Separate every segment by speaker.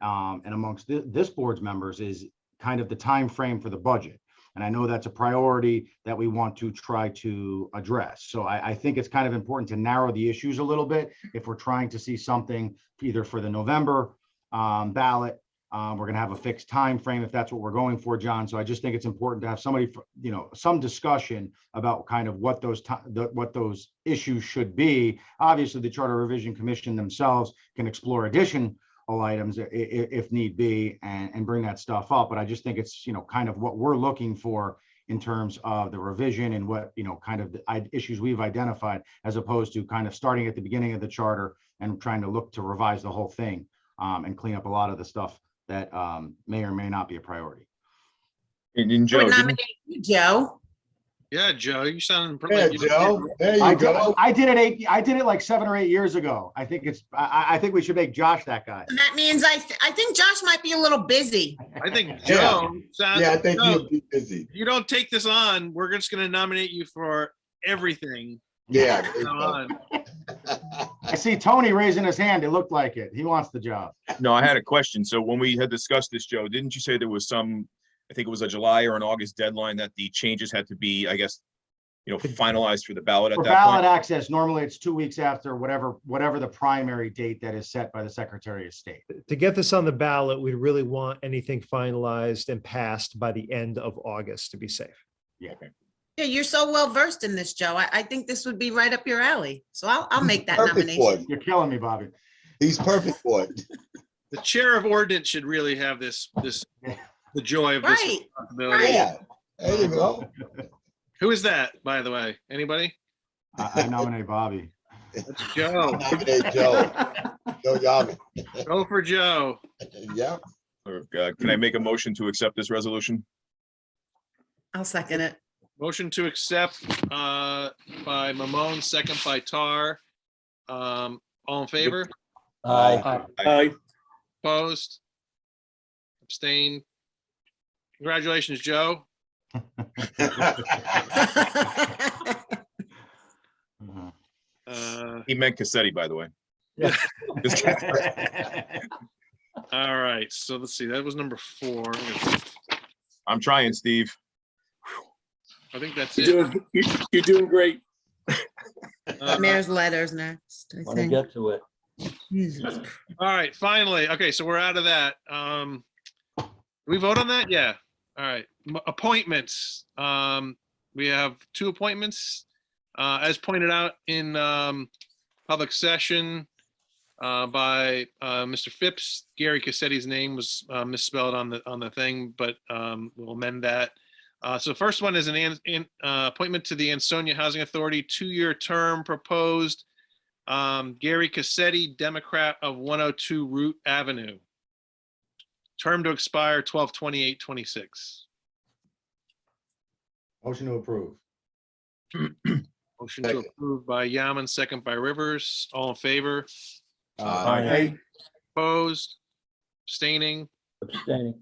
Speaker 1: um, and amongst thi- this board's members is kind of the time frame for the budget. And I know that's a priority that we want to try to address. So I, I think it's kind of important to narrow the issues a little bit if we're trying to see something either for the November um, ballot. Um, we're gonna have a fixed time frame if that's what we're going for, John. So I just think it's important to have somebody, fr- you know, some discussion about kind of what those ti- the what those issues should be. Obviously, the Charter Revision Commission themselves can explore addition all items i- i- if need be and, and bring that stuff up. But I just think it's, you know, kind of what we're looking for in terms of the revision and what, you know, kind of the i- issues we've identified as opposed to kind of starting at the beginning of the charter and trying to look to revise the whole thing um, and clean up a lot of the stuff that um, may or may not be a priority.
Speaker 2: And then
Speaker 3: I
Speaker 2: Joe,
Speaker 3: would
Speaker 2: didn't-
Speaker 3: nominate you, Joe.
Speaker 4: Yeah, Joe, you sound.
Speaker 5: Yeah, Joe, there
Speaker 1: I
Speaker 5: you
Speaker 1: did,
Speaker 5: go.
Speaker 1: I did it eight, I did it like seven or eight years ago. I think it's, I, I- I think we should make Josh that guy.
Speaker 3: That means I, th- I think Josh might be a little busy.
Speaker 4: I think
Speaker 5: Yeah.
Speaker 4: Joe sounds.
Speaker 5: Yeah, I think
Speaker 4: Joe,
Speaker 5: you'll be busy.
Speaker 4: You don't take this on, we're just gonna nominate you for everything.
Speaker 5: Yeah.
Speaker 4: from now on.
Speaker 1: I see Tony raising his hand. It looked like it. He wants the job.
Speaker 2: no, I had a question. So when we had discussed this, Joe, didn't you say there was some, I think it was a July or an August deadline that the changes had to be, I guess, you know, finalized for the ballot
Speaker 1: For
Speaker 2: at that
Speaker 1: ballot
Speaker 2: point?
Speaker 1: access, normally it's two weeks after whatever, whatever the primary date that is set by the Secretary of State.
Speaker 6: to get this on the ballot, we'd really want anything finalized and passed by the end of August to be safe.
Speaker 3: Yeah, you're so well versed in this, Joe. I, I think this would be right up your alley. So I'll, I'll make that
Speaker 5: Perfect for
Speaker 3: nomination.
Speaker 5: it.
Speaker 1: You're killing me, Bobby.
Speaker 5: He's perfect for it.
Speaker 4: The chair of ordinance should really have this, this, the joy of this
Speaker 3: Right,
Speaker 4: responsibility.
Speaker 5: Yeah. There you go.
Speaker 4: Who is that, by the way? Anybody?
Speaker 1: I I nominate Bobby.
Speaker 4: That's Joe.
Speaker 5: Nominate Joe. Joe Yaman.
Speaker 4: Go for Joe.
Speaker 5: Yeah.
Speaker 2: Or, uh, Can I make a motion to accept this resolution?
Speaker 3: I'll second it.
Speaker 4: Motion to accept, uh, by Mamone, second by Tar. Um, all in favor?
Speaker 5: Aye.
Speaker 4: Opposed? Abstained? Congratulations, Joe.
Speaker 1: Mhm.
Speaker 4: Uh,
Speaker 2: He meant Cassetti, by the way.
Speaker 6: Yeah.
Speaker 2: Just kidding.
Speaker 4: all right, so let's see, that was number four.
Speaker 2: I'm trying, Steve.
Speaker 4: I think that's
Speaker 7: You're
Speaker 4: it.
Speaker 7: doing, you- you're doing great.
Speaker 4: Uh,
Speaker 3: Mayor's letters next, I
Speaker 8: Want to
Speaker 3: think.
Speaker 8: get to it.
Speaker 3: Jesus.
Speaker 4: All right, finally, okay, so we're out of that. Um, did we vote on that? Yeah, all right. M- Appointments, um, we have two appointments. Uh, as pointed out in, um, public session, uh, by, uh, Mr. Phipps, Gary Cassetti's name was, uh, misspelled on the, on the thing, but, um, we'll amend that. Uh, so first one is an, an, an, uh, appointment to the Ansonia Housing Authority, two-year term proposed. Um, Gary Cassetti, Democrat of 102 Root Avenue. Term to expire 12 26
Speaker 1: Motion to approve.
Speaker 4: Motion to
Speaker 5: Second.
Speaker 4: approve by Yaman, second by Rivers. All in favor?
Speaker 5: Aye.
Speaker 7: Aye.
Speaker 4: Opposed? Abstaining?
Speaker 8: Abstaining.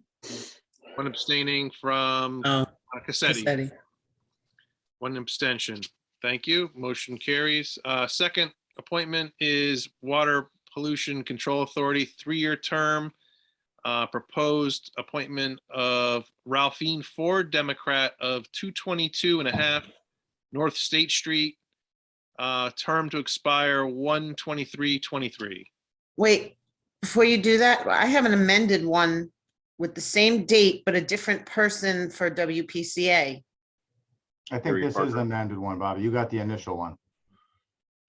Speaker 4: One abstaining from uh,
Speaker 3: Oh,
Speaker 4: Cassetti.
Speaker 3: Cassetti.
Speaker 4: One abstention. Thank you. Motion carries. Uh, Second appointment is Water Pollution Control Authority, three-year term. Uh, Proposed appointment of Ralphine Ford, Democrat of 222 and a half North State Street. uh, Term to expire 1/23/23.
Speaker 3: Wait, before you do that, I have an amended one with the same date, but a different person for WPCA.
Speaker 1: I think
Speaker 2: Harry
Speaker 1: this is
Speaker 2: Parker.
Speaker 1: the amended one, Bobby. You got the initial one.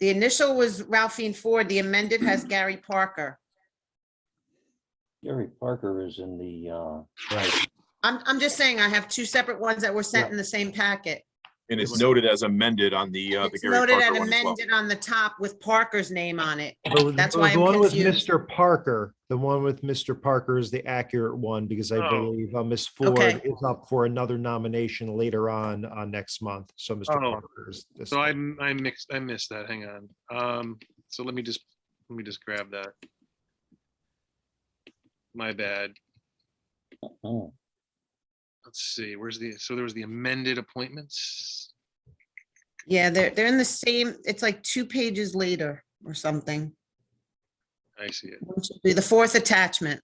Speaker 3: The initial was Ralphine Ford, the amended has Gary Parker.
Speaker 8: Gary Parker is in the, uh,
Speaker 1: Right.
Speaker 3: I'm, I'm just saying I have two separate ones that were sent in the same packet.
Speaker 2: And it's noted as amended on the, uh, the
Speaker 3: It's
Speaker 2: Gary
Speaker 3: noted and
Speaker 2: Parker one as well.
Speaker 3: amended on the top with Parker's name on it.
Speaker 6: But with-
Speaker 3: That's
Speaker 6: but
Speaker 3: why
Speaker 6: the
Speaker 3: I'm
Speaker 6: one with
Speaker 3: confused.
Speaker 6: Mr. Parker, the one with Mr. Parker is the accurate one because I
Speaker 4: Oh.
Speaker 6: believe uh, Ms. Ford
Speaker 3: Okay.
Speaker 6: is up for another nomination later on, uh, next month. So Mr.
Speaker 4: Oh.
Speaker 6: Parker is. this
Speaker 4: So I,
Speaker 6: one.
Speaker 4: I mixed, I missed that. Hang on. Um, so let me just, let me just grab that. My bad.
Speaker 8: oh,
Speaker 4: Let's see, where's the, so there was the amended appointments?
Speaker 3: Yeah, they're, they're in the same, it's like two pages later or something.
Speaker 4: I see it.
Speaker 3: It should Be the fourth attachment.